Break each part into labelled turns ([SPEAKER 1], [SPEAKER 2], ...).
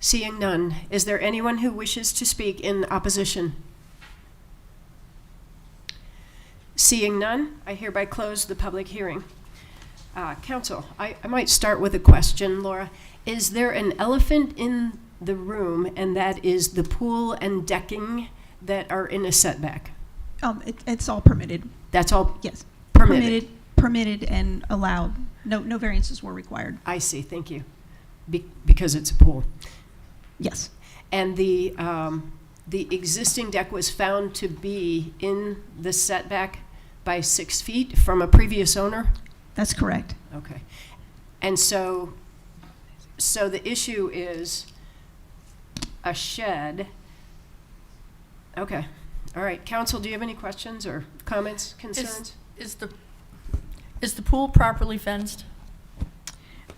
[SPEAKER 1] Seeing none, is there anyone who wishes to speak in opposition? Seeing none, I hereby close the public hearing. Uh, Counsel, I I might start with a question, Laura. Is there an elephant in the room, and that is the pool and decking that are in a setback?
[SPEAKER 2] Um, it, it's all permitted,
[SPEAKER 1] That's all
[SPEAKER 2] yes.
[SPEAKER 1] permitted?
[SPEAKER 2] Permitted and allowed. No, no variances were required,
[SPEAKER 1] I see, thank you. Be- Because it's a pool.
[SPEAKER 2] yes.
[SPEAKER 1] And the, um, the existing deck was found to be in the setback by six feet from a previous owner?
[SPEAKER 2] That's correct.
[SPEAKER 1] Okay. And so, so the issue is a shed. Okay, all right. Council, do you have any questions or comments, concerns?
[SPEAKER 3] Is the, is the pool properly fenced?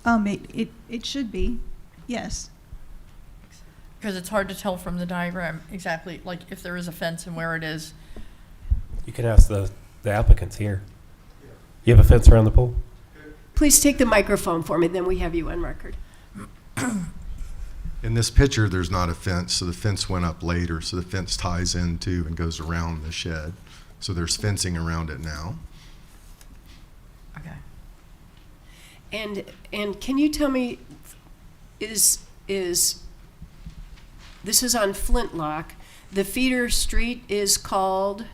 [SPEAKER 2] Um, it, it, it should be, yes.
[SPEAKER 3] Because it's hard to tell from the diagram exactly, like, if there is a fence and where it is.
[SPEAKER 4] You can ask the, the applicants here. You have a fence around the pool?
[SPEAKER 1] Please take the microphone for me, then we have you on record.
[SPEAKER 5] In this picture, there's not a fence, so the fence went up later, so the fence ties into and goes around the shed. So there's fencing around it now.
[SPEAKER 3] Okay.
[SPEAKER 1] And, and can you tell me, is, is, this is on Flintlock, the feeder street is called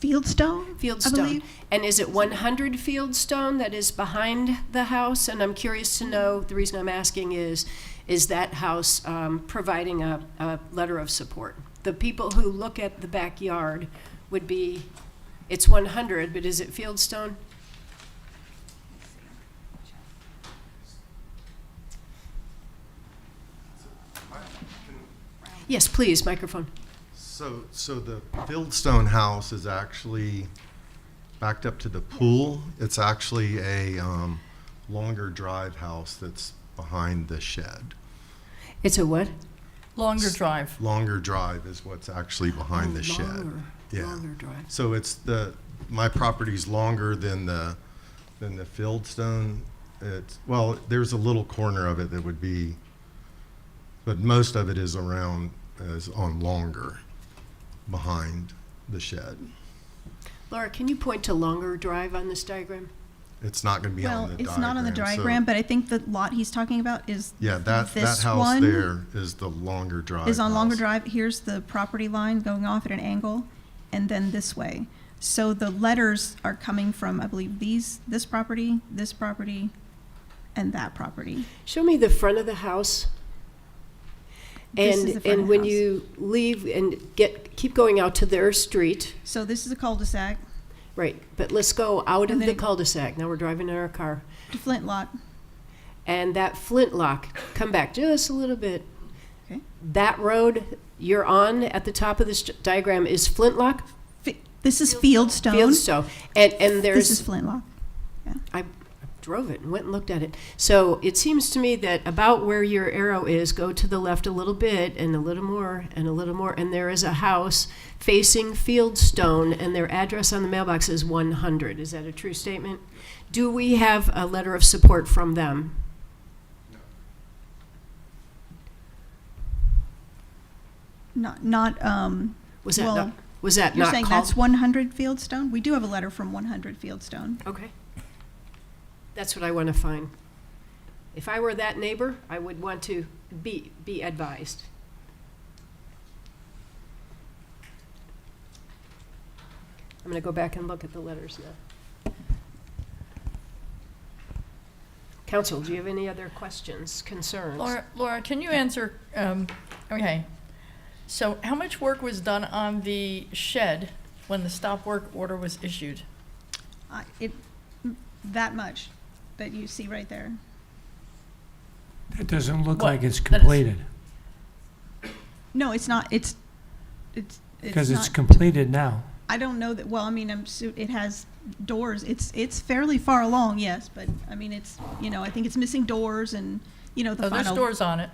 [SPEAKER 2] Fieldstone? I
[SPEAKER 1] Fieldstone?
[SPEAKER 2] believe.
[SPEAKER 1] And is it one hundred Fieldstone that is behind the house? And I'm curious to know, the reason I'm asking is, is that house, um, providing a, a letter of support? The people who look at the backyard would be, it's one hundred, but is it Fieldstone? Yes, please, microphone.
[SPEAKER 5] So, so the Fieldstone house is actually backed up to the pool. It's actually a um, longer drive house that's behind the shed.
[SPEAKER 1] It's a what?
[SPEAKER 3] Longer drive.
[SPEAKER 5] Longer drive is what's actually behind the shed.
[SPEAKER 1] Oh, Longer,
[SPEAKER 5] Yeah.
[SPEAKER 1] Longer drive.
[SPEAKER 5] So it's the, my property's longer than the, than the Fieldstone. It's, well, there's a little corner of it that would be, but most of it is around, is on longer, behind the shed.
[SPEAKER 1] Laura, can you point to longer drive on this diagram?
[SPEAKER 5] It's not gonna be on
[SPEAKER 2] Well,
[SPEAKER 5] the diagram.
[SPEAKER 2] it's not on the
[SPEAKER 5] so-
[SPEAKER 2] diagram, but I think the lot he's talking about is.
[SPEAKER 5] Yeah, that, that
[SPEAKER 2] this
[SPEAKER 5] house
[SPEAKER 2] one
[SPEAKER 5] there is the longer drive.
[SPEAKER 2] Is on Longer
[SPEAKER 5] house.
[SPEAKER 2] Drive. Here's the property line going off at an angle and then this way. So the letters are coming from, I believe, these, this property, this property, and that property.
[SPEAKER 1] Show me the front of the house.
[SPEAKER 2] This is
[SPEAKER 1] And,
[SPEAKER 2] the front of
[SPEAKER 1] and
[SPEAKER 2] the
[SPEAKER 1] when
[SPEAKER 2] house.
[SPEAKER 1] you leave and get, keep going out to their street,
[SPEAKER 2] So this is a cul-de-sac
[SPEAKER 1] right, but let's go out of
[SPEAKER 2] And
[SPEAKER 1] the
[SPEAKER 2] then-
[SPEAKER 1] cul-de-sac. Now we're driving in our car.
[SPEAKER 2] to Flintlock.
[SPEAKER 1] And that flintlock, come back just a little bit.
[SPEAKER 2] Okay.
[SPEAKER 1] That road you're on at the top of this diagram is Flintlock,
[SPEAKER 2] Fi- This is Fieldstone.
[SPEAKER 1] Fieldstone. And, and there's.
[SPEAKER 2] This is Flintlock.
[SPEAKER 1] I drove it and went and looked at it. So it seems to me that about where your arrow is, go to the left a little bit and a little more and a little more, and there is a house facing Fieldstone, and their address on the mailbox is 100. Is that a true statement? Do we have a letter of support from them?
[SPEAKER 2] Not, not, um,
[SPEAKER 1] Was that
[SPEAKER 2] Well,
[SPEAKER 1] not, was that
[SPEAKER 2] you're
[SPEAKER 1] not
[SPEAKER 2] saying
[SPEAKER 1] called?
[SPEAKER 2] that's 100 Fieldstone? We do have a letter from 100 Fieldstone.
[SPEAKER 1] okay, that's what I want to find. If I were that neighbor, I would want to be be advised. I'm going to go back and look at the letters now. Council, do you have any other questions, concerns?
[SPEAKER 3] Laura, Laura, can you answer, um, okay. So how much work was done on the shed when the stop work order was issued?
[SPEAKER 2] I- It, that much that you see right there.
[SPEAKER 6] That doesn't look
[SPEAKER 3] Well,
[SPEAKER 6] like it's
[SPEAKER 3] that is-
[SPEAKER 6] completed,
[SPEAKER 2] No, it's not, it's, it's,
[SPEAKER 6] because
[SPEAKER 2] it's
[SPEAKER 6] it's
[SPEAKER 2] not,
[SPEAKER 6] completed now.
[SPEAKER 2] I don't know that, well, I mean, I'm, su- it has doors. It's, it's fairly far along, yes, but, I mean, it's, you know, I think it's missing doors and, you know,
[SPEAKER 3] Oh,
[SPEAKER 2] the
[SPEAKER 3] there's
[SPEAKER 2] final.
[SPEAKER 3] doors on it.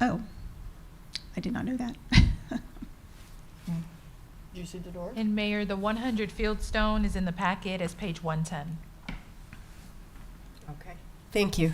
[SPEAKER 2] Oh, I did not know that.
[SPEAKER 3] Do you see the door?
[SPEAKER 7] And Mayor, the 100 Fieldstone is in the packet as page 110.
[SPEAKER 1] Okay, thank you.